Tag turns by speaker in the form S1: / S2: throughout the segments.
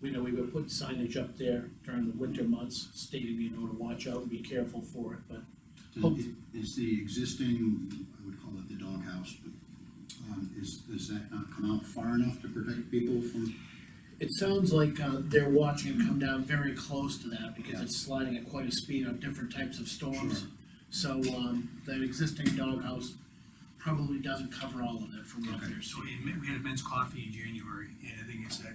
S1: We know we were putting signage up there during the winter months stating, you know, to watch out and be careful for it, but Hope-
S2: Does- Is the existing, I would call it the doghouse, but, um, is, does that not come out far enough to protect people from?
S1: it sounds like, uh, they're watching it come down very close to that because it's sliding at quite a speed on different types of storms.
S2: Sure.
S1: So, um, that existing doghouse probably doesn't cover all of it from what
S2: Okay.
S1: they're
S3: So
S1: seeing.
S3: we, had- we had a men's coffee in January, and the thing is that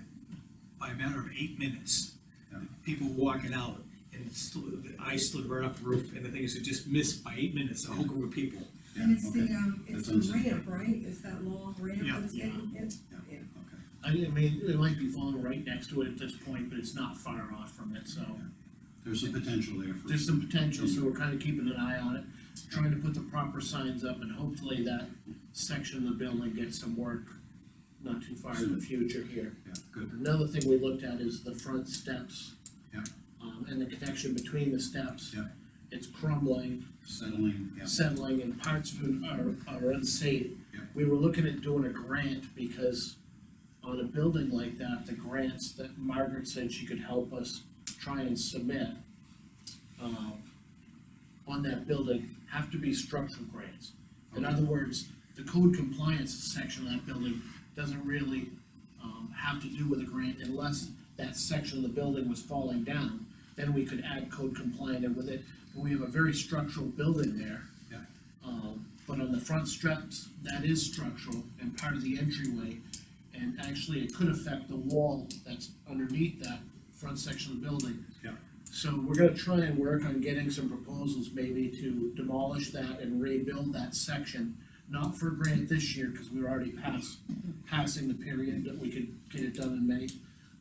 S3: by a matter of eight minutes,
S2: Yeah.
S3: people were walking out, and it slid- the ice slid right off the roof, and the thing is, it just missed by eight minutes, a whole group of people.
S4: And it's the,
S2: Okay,
S4: um,
S2: That's
S4: it's
S2: what I'm
S4: the
S2: saying.
S4: ramp, right? It's that long ramp
S3: Yeah,
S4: that's getting hit?
S2: Yeah,
S1: uh,
S2: okay.
S1: I mean, it might be falling right next to it at this point, but it's not far off from it, so.
S2: There's some potential there for.
S1: There's some potential, so we're kind of keeping an eye on it, trying to put the proper signs up, and hopefully that section of the building gets some work not too far in the future here.
S2: Yeah, good,
S1: Another thing we looked at is the front steps.
S2: Yeah.
S1: Um, and the connection between the steps.
S2: Yeah.
S1: It's crumbling,
S2: settling, yeah,
S1: settling, and parts of it are, are unsafe.
S2: Yeah.
S1: We were looking at doing a grant, because on a building like that, the grants that Margaret said she could help us try and submit, um, on that building, have to be structural grants. In
S2: Okay.
S1: other words, the code compliance section of that building doesn't really, um, have to do with a grant unless that section of the building was falling down, then we could add code compliant with it. But we have a very structural building there.
S2: Yeah.
S1: Um, but on the front steps, that is structural and part of the entryway. And actually, it could affect the wall that's underneath that front section of the building.
S2: Yeah.
S1: So we're gonna try and work on getting some proposals maybe to demolish that and rebuild that section. Not for grant this year, because we were already past, passing the period that we could get it done in May.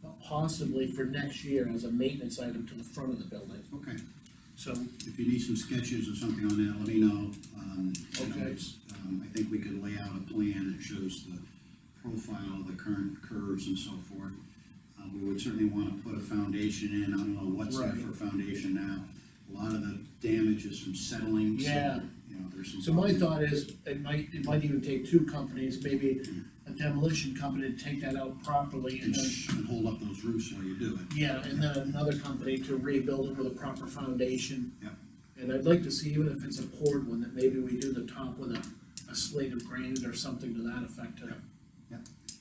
S1: But possibly for next year as a maintenance item to the front of the building.
S2: okay.
S1: So
S2: If you need some sketches or something on that, let me know. Um, you know,
S1: Okay.
S2: it's, Um, I think we could lay out a plan that shows the profile, the current curves and so forth. Uh, we would certainly wanna put a foundation in, I don't know what's there
S1: Right.
S2: for foundation now. A lot of the damage is from settling, so,
S1: Yeah.
S2: you know, there's some.
S1: So my thought is, it might, it might even take two companies, maybe a demolition company to take that out properly and
S2: And
S1: then,
S2: sh- and hold up those roofs while you do it.
S1: yeah, and then another company to rebuild it with a proper foundation.
S2: Yeah.
S1: And I'd like to see, even if it's a poured one, that maybe we do the top with a, a slate of granite or something to that effect. to-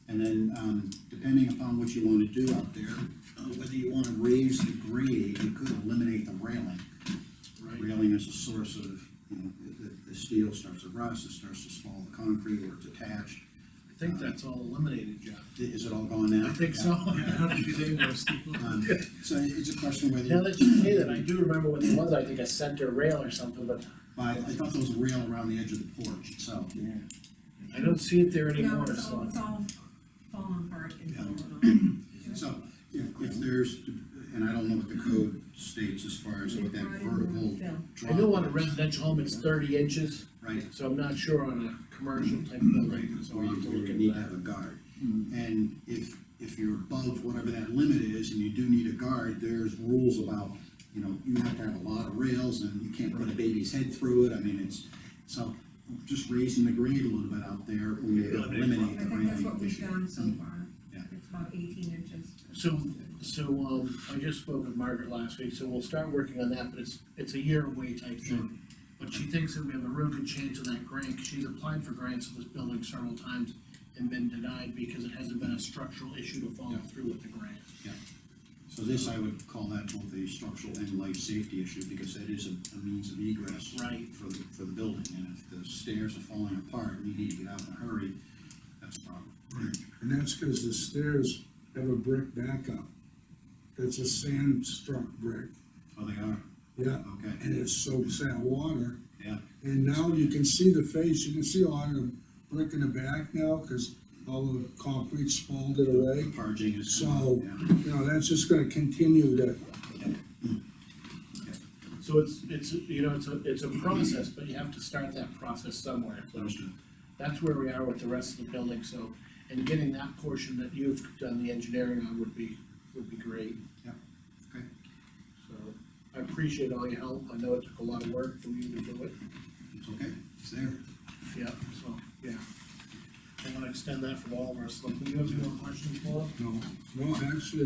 S2: And then, um, depending upon what you wanna do out there, uh, whether you wanna raise the grade, you could eliminate the railing.
S1: Right,
S2: railing is a source of, you know, the, the steel starts to rust, it starts to swallow the concrete where it's attached.
S1: I think that's all eliminated, Jeff.
S2: Is it all gone now?
S1: I think so.
S2: Um, So it's a question whether,
S1: Now
S2: you-
S1: that you say that, I do remember what it was, I think a center rail or something, but
S2: I, I thought there was a rail around the edge of the porch itself.
S1: I don't see it there
S4: No,
S1: anymore,
S4: it's
S1: so.
S4: all, it's all falling apart and
S2: Yeah.
S4: falling
S2: So if, if there's, and I don't know what the code states as far as what that vertical
S4: Film.
S2: drop.
S1: I know on a residential home, it's thirty inches.
S2: Right,
S1: So I'm not sure on a commercial type building, so
S2: or
S1: I'll
S2: you
S1: have to
S2: you
S1: look
S2: need
S1: into
S2: to have
S1: that.
S2: a guard. And if, if you're above whatever that limit is and you do need a guard, there's rules about, you know, you have to have a lot of rails and you can't put a baby's head through it, I mean, it's, so just raising the grade a little bit out there, we may eliminate
S4: I
S2: the
S4: think that's what
S2: railing
S4: we've
S2: issue. Mm-hmm.
S4: done so far.
S2: Yeah.
S4: It's about eighteen inches.
S1: So, so, um, I just spoke with Margaret last week, so we'll start working on that, but it's, it's a year away type
S2: Sure.
S1: thing. But she thinks that we have a real good chance of that grant, 'cause she's applied for grants for this building several times and been denied because it hasn't been a structural issue to follow
S2: Yeah.
S1: through with the grant.
S2: So this, I would call that both a structural and life safety issue, because that is a, a means of egress.
S1: Right.
S2: For the, for the building, and if the stairs are falling apart, and you need to get out in a hurry, that's a problem.
S5: Right, and that's because the stairs have a brick backup. That's a sand struck brick,
S2: Oh, they are,
S5: yeah,
S2: okay,
S5: and it soaks that water.
S2: yeah,
S5: And now you can see the face, you can see a lot of the brick in the back now, because all the concrete spalled it away.
S2: the parging is.
S5: So-
S2: Yeah.
S5: You know, that's just gonna continue to,
S1: So it's, it's, you know, it's a, it's a process, but you have to start that process somewhere, so.
S2: Understood.
S1: That's where we are with the rest of the building, so, and getting that portion that you've done the engineering on would be, would be great.
S2: Yeah, okay.
S1: So, I appreciate all your help, I know it took a lot of work for you to do it,
S2: It's okay, it's there.
S1: yeah, so, yeah. I wanna extend that for all of us, like, do you have any more questions, Paul?
S5: no, no, actually,